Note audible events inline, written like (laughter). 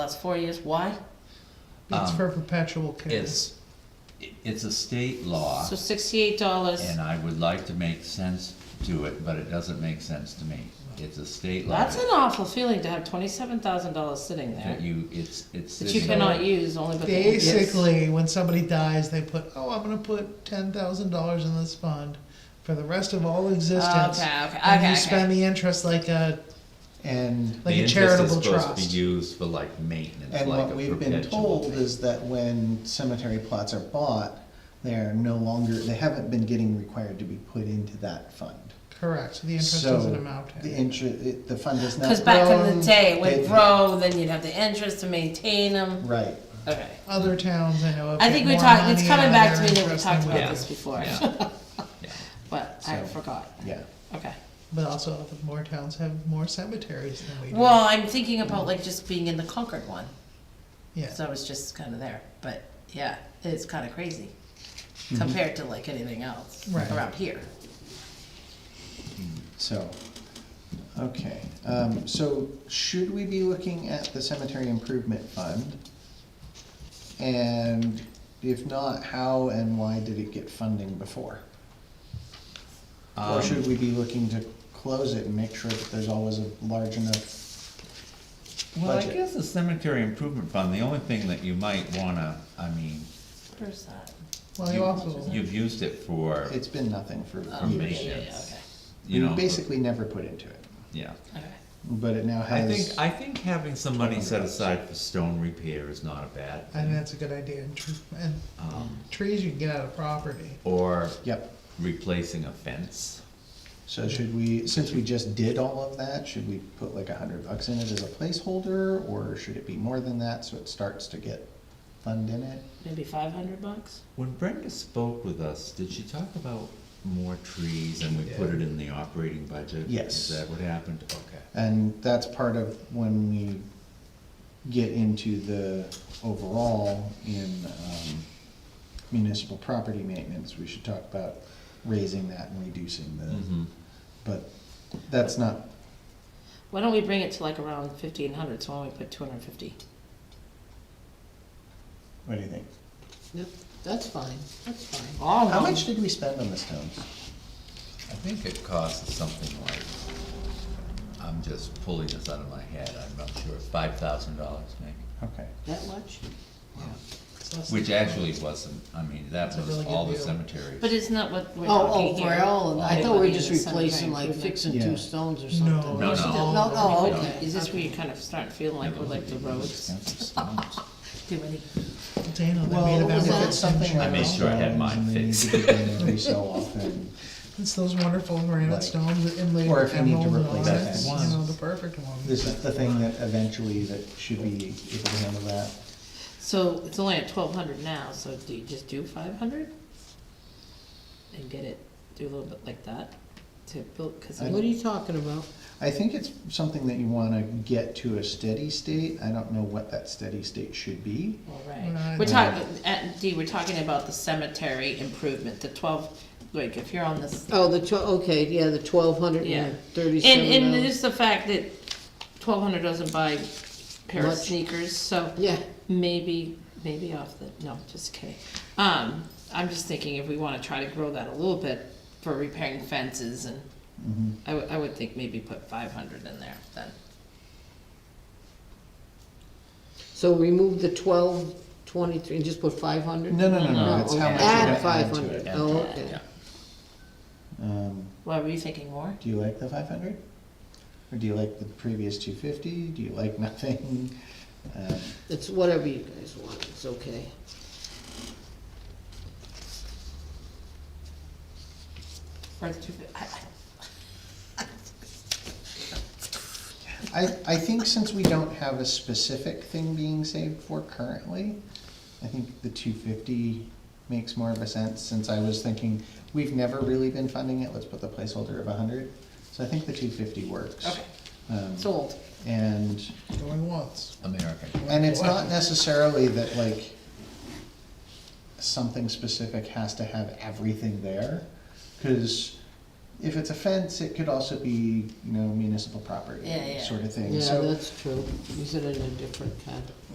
Last four years, why? It's Um, for perpetual care. It's, it's a state law, So sixty-eight dollars, and I would like to make sense to it, but it doesn't make sense to me. It's a state law. that's an awful feeling to have twenty-seven thousand dollars sitting there That you, it's, it's. that you sitting cannot there. use only but. the- Basically, when somebody dies, they put, oh, I'm gonna put ten thousand dollars in this fund for the rest of all existence. Okay, okay, And okay, you spend okay. the interest like a, And, like The a interest is charitable Supposed to be trust. used for like maintenance, like a and what we've been perpetual told thing. is that when cemetery plots are bought, they're no longer, they haven't been getting required to be put into that fund. Correct, so the interest So doesn't amount to The anything. interest, the fund is not. Cause back in grown. the day, with It- row, then you'd have the interest to maintain them, Right, okay. Other towns I know have. I think we more talked, it's money coming out of back to their me that we interest talked than about Yeah. this before, (laughs) Yeah. Yeah. but I So- forgot, yeah. okay. But also, the more towns have more cemeteries than we do. Well, I'm thinking about like just being in the Concord one, Yeah, so I was just kinda there, but yeah, it's kinda crazy Mm-hmm. compared to like anything else Right. around here. So, okay, um, so should we be looking at the cemetery improvement fund? And if not, how and why did it get funding before? Or Um, should we be looking to close it and make sure that there's always a large enough, Well, I budget. guess the cemetery improvement fund, the only thing that you might wanna, I mean, Where's that? well, you you- also, you've used it for, it's been nothing for Oh, yeah, years. yeah, yeah, Yes. okay, you know. We basically never put into it, Yeah. okay. but it now I has. think, I think having some money set aside for stone repair is not a I bad think thing. that's a good idea, and, tr- and Um, trees you can get out of property. Or Yep, replacing a fence. so should we, since we just did all of that, should we put like a hundred bucks in it as a placeholder? Or should it be more than that, so it starts to get fund in it? Maybe five hundred bucks? When Brenda spoke with us, did she talk about more trees and we put it in the operating budget? Yes. Is that what happened? Okay. And that's part of when we get into the overall in um, municipal property maintenance, we should talk about raising that and reducing the, Mm-hmm. but that's not, Why don't we bring it to like around fifteen hundred, so why don't we put two hundred and fifty? what do you think? That's fine, that's fine. All How of them. much did we spend on the stones? I think it costs something like, I'm just pulling this out of my head, I'm not sure, five thousand dollars maybe. Okay, That much? It's less Which than- actually wasn't, I mean, that That's a was really good all the deal. cemeteries. But it's not what we're Oh, oh, talking for here. all, of- I It thought would we be were just the cemetery replacing like improvement. fixing Yeah. two stones or No. something. No, no. No, no, Like, okay. Is this where you're kind of starting feeling like we're like the roads? (laughs) Do any, Dana, they made well, about if well, that it's something century. like. I made sure I had mine fixed. Every so often, It's those wonderful granite Like- stones that inlaid Or with if you need to emerald and replace onyx, you that. know, the perfect one. this is the thing that eventually that should be able to handle that. so it's only at twelve hundred now, so do you just do five hundred? And get it, do a little bit like that to build, cause. I- What are you talking about? I think it's something that you wanna get to a steady state, I don't know what that steady state should be. All Right. right, we're Yeah. talking, at D, we're talking about the cemetery improvement, the twelve, like, if you're on this. Oh, the tw- okay, yeah, the twelve hundred Yeah. and And, thirty-seven and dollars. it's the fact that twelve hundred doesn't buy a pair of Much. sneakers, so Yeah, maybe, maybe off the, no, just kidding. Um, I'm just thinking if we wanna try to grow that a little bit for repairing fences and Mhm. Mm-hmm. I would, I would think maybe put five hundred in there then. so remove the twelve twenty-three and just put five hundred? No, no, no, no, it's how much you're gonna Oh, Add add five to hundred, it. oh, okay. Um, Why, were you thinking more? do you like the five hundred? Or do you like the previous two fifty, do you like (laughs) nothing? Um, It's whatever you guys want, it's okay. Or the two, fif- I, I, I, I think since we don't have a specific thing being saved for currently, I think the two fifty makes more of a sense, since I was thinking, we've never really been funding it, let's put the placeholder of hundred. So I think the two fifty works. Okay. Um, sold. And, Going once. American. and it's not necessarily that like something specific has to have everything there, cause if it's a fence, it could also be, you know, municipal property, Yeah, yeah. sort of thing. Yeah, So that's true. Use it in a different kind.